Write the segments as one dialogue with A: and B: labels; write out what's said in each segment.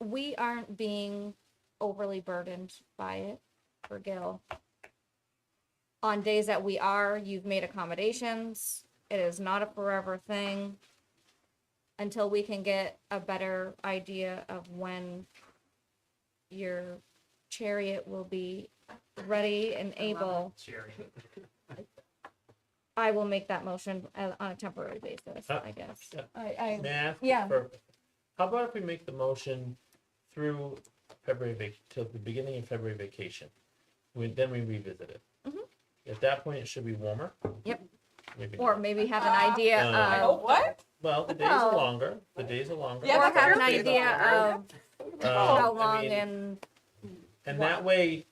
A: we aren't being overly burdened by it for Gil. On days that we are, you've made accommodations. It is not a forever thing. Until we can get a better idea of when your chariot will be ready and able,
B: Jerry.
A: I will make that motion uh, on a temporary basis,
C: Huh.
A: I guess.
C: Oh, Yeah.
A: I, I,
C: May I ask
A: Yeah.
C: for- How about if we make the motion through February vac, till the beginning of February vacation? We, then we revisit it.
A: Mhm.
C: At that point, it should be warmer.
A: Yep.
C: Maybe
A: or
C: not.
A: maybe have an idea
C: No, no, no.
D: Uh,
A: of.
E: Oh, what?
C: Well, the days are
A: No.
C: longer, the days are longer.
E: Yeah,
A: or
E: that's
A: have an
E: perfect.
A: idea of
C: Um,
A: how
C: I
A: long
C: mean,
A: and
C: And that way,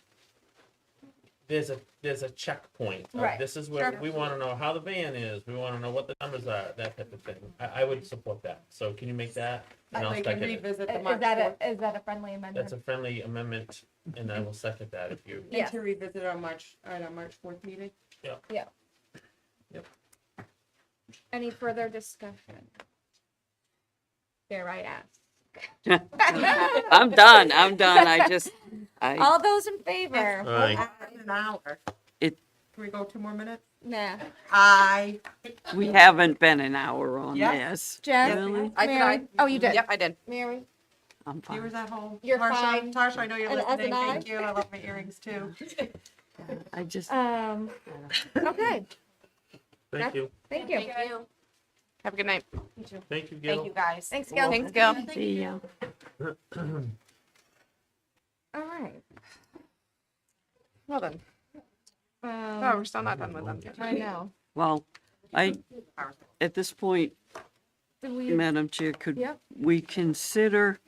C: there's a, there's a checkpoint. of
A: Right,
C: This is where,
A: sure.
C: we wanna know how the van is, we wanna know what the numbers are, that type of thing. I, I would support that. So can you make that? And I'll
E: Like we
C: second it.
E: revisit the
A: Is
E: March
A: that
E: fourth,
A: a, is that a friendly amendment?
C: That's a friendly amendment, and I will second that if you,
A: Yeah.
E: and to revisit our March, on our March fourth meeting.
A: Any further discussion? Dare I ask?
D: I'm done. I'm done. I just, I,
A: All those in favor?
E: Uh,
C: Aye.
E: An hour.
D: It-
E: Can we go two more minutes?
A: Nah.
E: Aye.
D: we haven't been an hour on
E: Yeah.
D: this.
A: Jen?
D: Really?
E: I did,
A: Mary?
E: I-
A: Oh, you did?
F: Yep, I did.
A: Mary?
D: I'm fine.
E: Viewers at home.
A: You're
E: Tarsha-
A: fine.
E: Tarsha, I know you're
A: And as an
E: listening.
A: eye.
E: Thank you. I love my earrings too.
D: I just,
A: Um, okay,
C: thank you,
A: thank you.
F: Have a good night.
C: thank you, Gil.
F: Thank you, guys.
A: Thanks, Gil.
F: Thanks, Gil.
D: the, uh,
A: All right.
F: Well done. Oh,
A: Um,
F: we're still not done with them.
A: I know.
D: well, I, at this point,
A: Did we,
D: Madam Chair, could
A: Yep.
D: we consider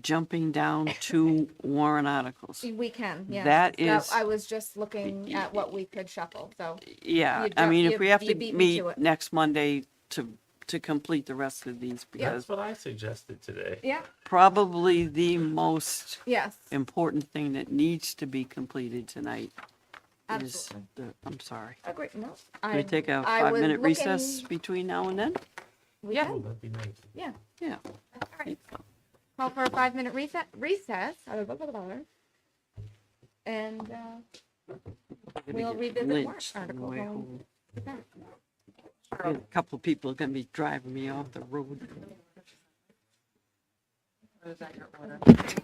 D: jumping down to warrant articles?
A: we can, yeah.
D: That is-
A: I was just looking at what we could shuffle, so,
D: Yeah,
A: You
D: I
A: ju-
D: mean,
A: you-
D: if we have
A: you
D: to
A: beat me
D: meet
A: to it.
D: next Monday to, to complete the rest of these,
C: That's
D: because
C: what I suggested today.
A: yeah,
D: probably the most
A: yes,
D: important thing that needs to be completed tonight is,
A: absolutely.
D: the- I'm sorry.
A: Agree, no.
D: Can we take a
A: I was
D: five-minute recess
A: looking-
D: between now and then?
A: We
F: Yeah.
A: can.
D: Oh.
C: Ooh, that'd be nice.
A: Yeah.
D: Yeah.
A: All right. Call for a five minute recess, recess. uh, blah, blah, blah, blah. And, uh,
D: Gonna
A: We'll
D: get
A: revisit warrant
D: lynched on the
A: articles
D: way
A: when we
D: home.
A: get back.
D: Yeah, A couple of people are gonna be driving me off the road.
E: Those are your order.